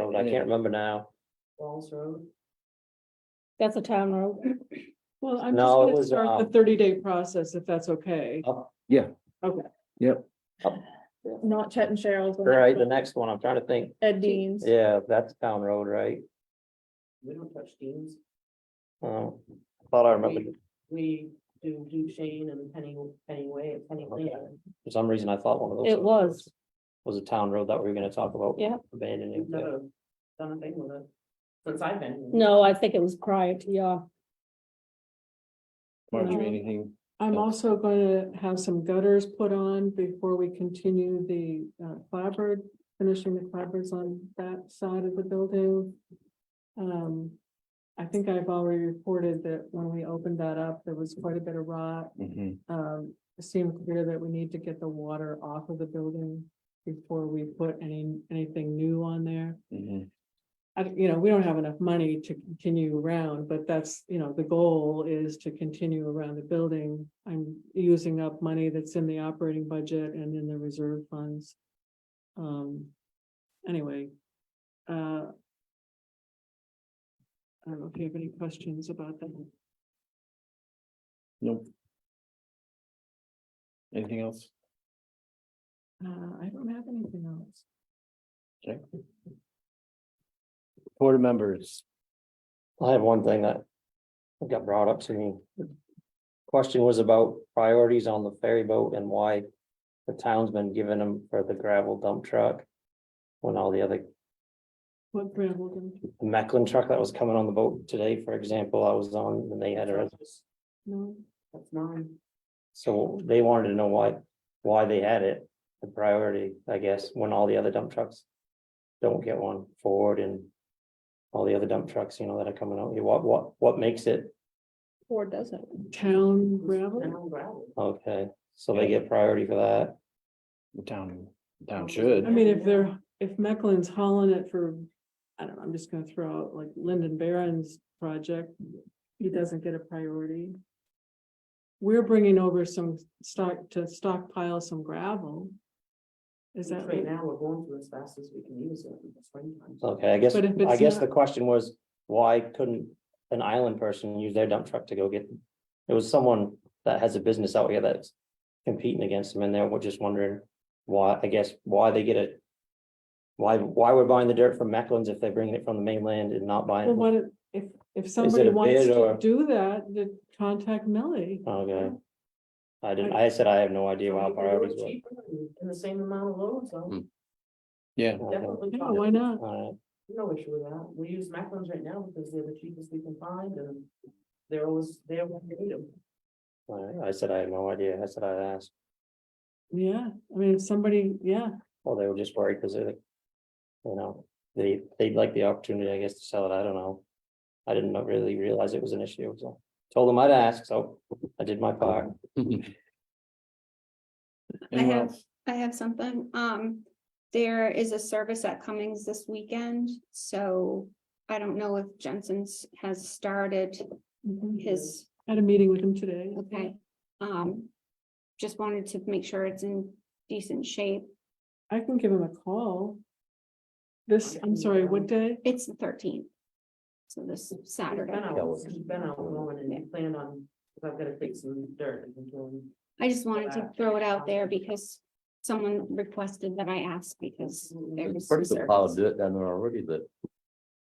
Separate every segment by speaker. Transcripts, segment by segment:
Speaker 1: I can't remember now.
Speaker 2: Falls Road.
Speaker 3: That's a town road.
Speaker 2: Well, I'm just
Speaker 1: No, it
Speaker 2: gonna
Speaker 1: was,
Speaker 2: start the
Speaker 1: um,
Speaker 2: thirty day process if that's okay.
Speaker 3: Not Chet and Cheryl's. one.
Speaker 1: Right, the next one, I'm trying to think.
Speaker 3: Ed Dean's.
Speaker 1: Yeah, that's town road, right?
Speaker 2: We don't touch teams.
Speaker 1: Oh, I thought I remembered.
Speaker 2: We do Duchesne and Penny, Pennyway, Penny
Speaker 1: Okay. For some reason, I thought one of those.
Speaker 3: It was.
Speaker 1: Was a town road that we were gonna talk about.
Speaker 3: Yeah.
Speaker 1: Abandoning. yeah.
Speaker 2: Never done a thing with it. Since I've been.
Speaker 3: No, I think it was prior to your,
Speaker 4: March,
Speaker 3: No.
Speaker 4: anything,
Speaker 5: I'm also going to have some gutters put on before we continue the uh, clapboard, finishing the clapboards on that side of the building. Um, I think I've already reported that when we opened that up, there was quite a bit of rot.
Speaker 4: Mhm.
Speaker 5: Um, it seemed clear that we need to get the water off of the building before we put any, anything new on there.
Speaker 4: Mhm.
Speaker 5: I, don't- you know, we don't have enough money to continue around, but that's, you know, the goal is to continue around the building. I'm using up money that's in the operating budget and in the reserve funds. Um, anyway, uh. I don't know if you have any questions about that.
Speaker 4: nope. Anything else?
Speaker 5: Uh, I don't have anything else.
Speaker 4: Board members,
Speaker 1: I have one thing that got brought up to me. Question was about priorities on the ferry boat and why the town's been giving them for the gravel dump truck. When all the other
Speaker 5: What Brad will do?
Speaker 1: Macklin truck that was coming on the boat today, for example, I was on and they had a,
Speaker 5: No,
Speaker 2: That's nine.
Speaker 1: so they wanted to know why, why they had it. The priority, I guess, when all the other dump trucks don't get one, Ford and all the other dump trucks, you know, that are coming out. here. What, what, what makes it?
Speaker 3: Ford doesn't.
Speaker 5: town
Speaker 2: And
Speaker 5: gravel.
Speaker 2: on gravel.
Speaker 1: Okay, so they get priority for that.
Speaker 4: the town, the town
Speaker 5: I
Speaker 4: should,
Speaker 5: mean, if they're, if Mecklen's hauling it for, I don't know, I'm just gonna throw out like Lyndon Barron's project, he doesn't get a priority. We're bringing over some stock to stockpile some gravel. Is that
Speaker 2: Right
Speaker 5: right?
Speaker 2: now, we're going through as fast as we can use it in the springtime.
Speaker 1: Okay, I guess,
Speaker 5: But if
Speaker 1: I
Speaker 5: it's
Speaker 1: guess
Speaker 5: not-
Speaker 1: the question was, why couldn't an island person use their dump truck to go get? It was someone that has a business out here that's competing against them and they were just wondering why, I guess, why they get it. Why, why we're buying the dirt from Mecklen's if they're bringing it from the mainland and not buying
Speaker 5: Well,
Speaker 1: it?
Speaker 5: what if- if, if somebody
Speaker 1: a
Speaker 5: wants
Speaker 1: bid
Speaker 5: to
Speaker 1: or-
Speaker 5: do that, then contact Millie.
Speaker 1: Okay. I didn't, I said I have no idea why priorities
Speaker 2: Cheaper and In the same amount of load, so
Speaker 4: yeah,
Speaker 1: were. Okay,
Speaker 2: definitely.
Speaker 5: Yeah,
Speaker 2: fine.
Speaker 5: why not?
Speaker 1: Uh-huh. all
Speaker 2: No issue with that. We use Macklin's right now because they're the cheapest we can find and they're always there when we need them.
Speaker 1: right, all right. I said I had no idea. I said I asked.
Speaker 5: Yeah, I mean, if somebody, yeah,
Speaker 1: Well, they were just worried because they're like, you know, they, they'd like the opportunity, I guess, to sell it. I don't know. I didn't know- really realize it was an issue, so told them I'd ask, so I did my part.
Speaker 4: anyone
Speaker 6: have-
Speaker 4: else?
Speaker 6: I have something, um, there is a service at Cummings this weekend, so I don't know if Jensen's has started
Speaker 5: mhm.
Speaker 6: his,
Speaker 5: had a meeting with him today.
Speaker 6: okay, um. Just wanted to make sure it's in decent shape,
Speaker 5: I can give him a call. This, I'm sorry, what day?
Speaker 6: it's the thirteenth. So this
Speaker 2: He's been
Speaker 6: Saturday,
Speaker 2: out, he's been out mowing and he planned on, i I've gotta take some dirt and doing.
Speaker 6: I just wanted to throw it out there because someone requested that I ask because there was some
Speaker 7: First of all,
Speaker 6: service.
Speaker 7: do it down there already, but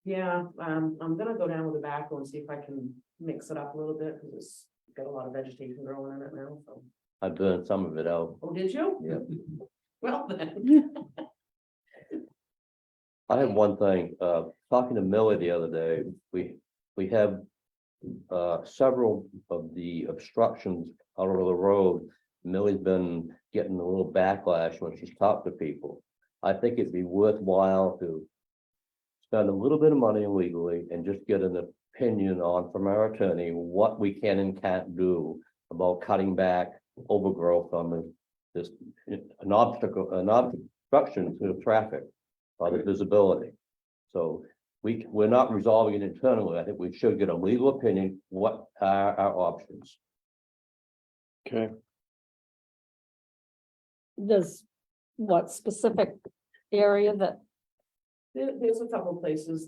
Speaker 2: Yeah, um, I'm gonna go down with the backhoe and see if I can mix it up a little bit, because it's got a lot of vegetation growing in it now, so.
Speaker 7: I burned some of it out.
Speaker 2: Oh, did you?
Speaker 7: Yeah.
Speaker 2: Well, then.
Speaker 7: I have one thing, uh, talking to Millie the other day, we, we have. Uh, several of the obstructions out of the road. Millie's been getting a little backlash when she's talked to people. I think it'd be worthwhile to. Spend a little bit of money legally and just get an opinion on from our attorney what we can and can't do. About cutting back overgrowth on the, this, an obstacle, an obstruction to the traffic by the visibility. So we, we're not resolving it internally. I think we should get a legal opinion, what are our options?
Speaker 4: Okay,
Speaker 3: There's what specific area that
Speaker 5: There, there's a couple places